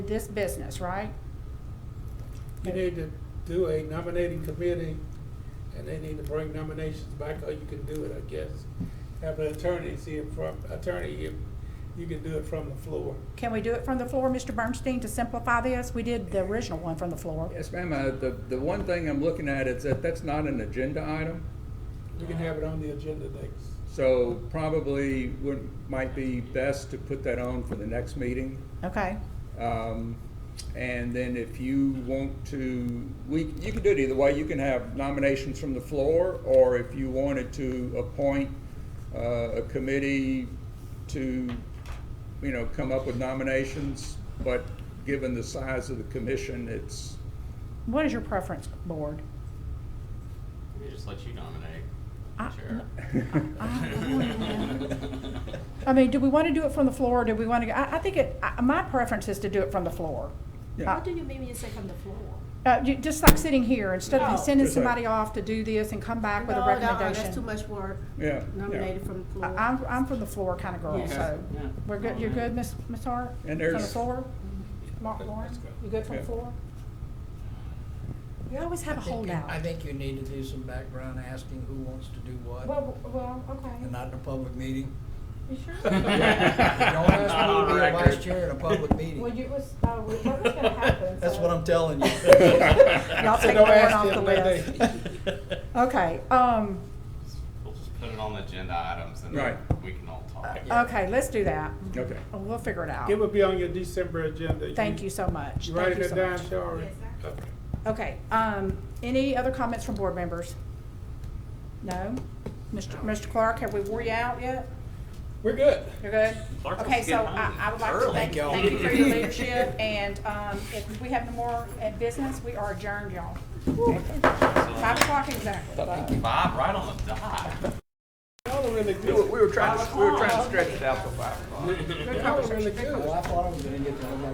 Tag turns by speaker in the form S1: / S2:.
S1: this business, right?
S2: You need to do a nominating committee, and they need to bring nominations back, or you can do it, I guess. Have an attorney see it from, attorney, if you can do it from the floor.
S1: Can we do it from the floor, Mr. Bernstein, to simplify this? We did the original one from the floor.
S3: Yes, ma'am, uh, the, the one thing I'm looking at is that that's not an agenda item,
S2: You can have it on the agenda next.
S3: so probably would, might be best to put that on for the next meeting.
S1: Okay,
S3: Um, and then if you want to, we, you can do it either way, you can have nominations from the floor, or if you wanted to appoint, uh, a committee to, you know, come up with nominations, but given the size of the commission, it's,
S1: what is your preference, board?
S4: Let me just let you nominate,
S1: I-
S4: Chair.
S1: I mean, do we want to do it from the floor, or do we want to, go I, I think it, I- my preference is to do it from the floor.
S3: Yeah.
S1: Uh,
S5: What do you mean when you say from the floor?
S1: Uh, ju- just like sitting here, instead
S5: No.
S1: of sending
S3: Just like-
S1: somebody off to do this and come back with a
S5: No, no, That's too
S1: recommendation.
S5: much work.
S3: yeah. yeah.
S5: Nominated from the
S1: I-
S5: floor.
S1: I'm, I'm from the floor kind of girl,
S5: Yeah.
S1: so,
S4: Yeah.
S1: we're good, you're good, Ms. Ms. Hart?
S3: And
S1: From the
S3: there's-
S1: floor? Ma- Lauren, you good from the
S3: Yeah.
S1: floor? You always have a
S6: I think you-
S1: holdout.
S6: I think you need to do some background asking who wants to do what,
S1: Well, well,
S6: and
S1: okay.
S6: not in a public meeting.
S1: You sure?
S6: Don't ask me to be a vice chair in a public
S1: Well,
S6: meeting.
S1: you was, uh, we- what was gonna happen?
S6: That's
S1: so-
S6: what I'm telling you.
S1: Y'all
S2: So
S1: take
S2: don't
S1: Lauren
S2: ask
S1: off
S2: them,
S1: the
S2: they-
S1: list.
S2: they-
S1: Okay, um,
S4: We'll just put it on the agenda items and then
S3: Right.
S4: we can all talk.
S6: Yeah.
S1: okay, let's do that.
S3: Okay.
S1: We'll figure it out.
S2: It would be on your December agenda.
S1: Thank you so much.
S2: You
S1: Thank
S2: writing
S1: you
S2: it
S1: so
S2: down,
S1: much.
S2: Shari?
S1: Okay, um, any other comments from board members? No? Mr. Mr. Clark, have we wore you out yet?
S2: We're good.
S1: You're good?
S4: Clark was
S1: Okay, so
S4: getting
S1: I,
S4: hungry.
S1: I would like to
S4: Early.
S1: thank,
S6: Thank y'all.
S1: thank you for your leadership, and, um, if we have no more uh, business, we are adjourned, y'all. Five o'clock exactly. Bye.
S4: Bob, right on the dot.
S2: Y'all are really
S3: We
S2: good.
S3: were, we were trying to, we were trying to stretch it out for five o'clock.
S2: Y'all are really good.
S6: Well, I thought I was gonna get to.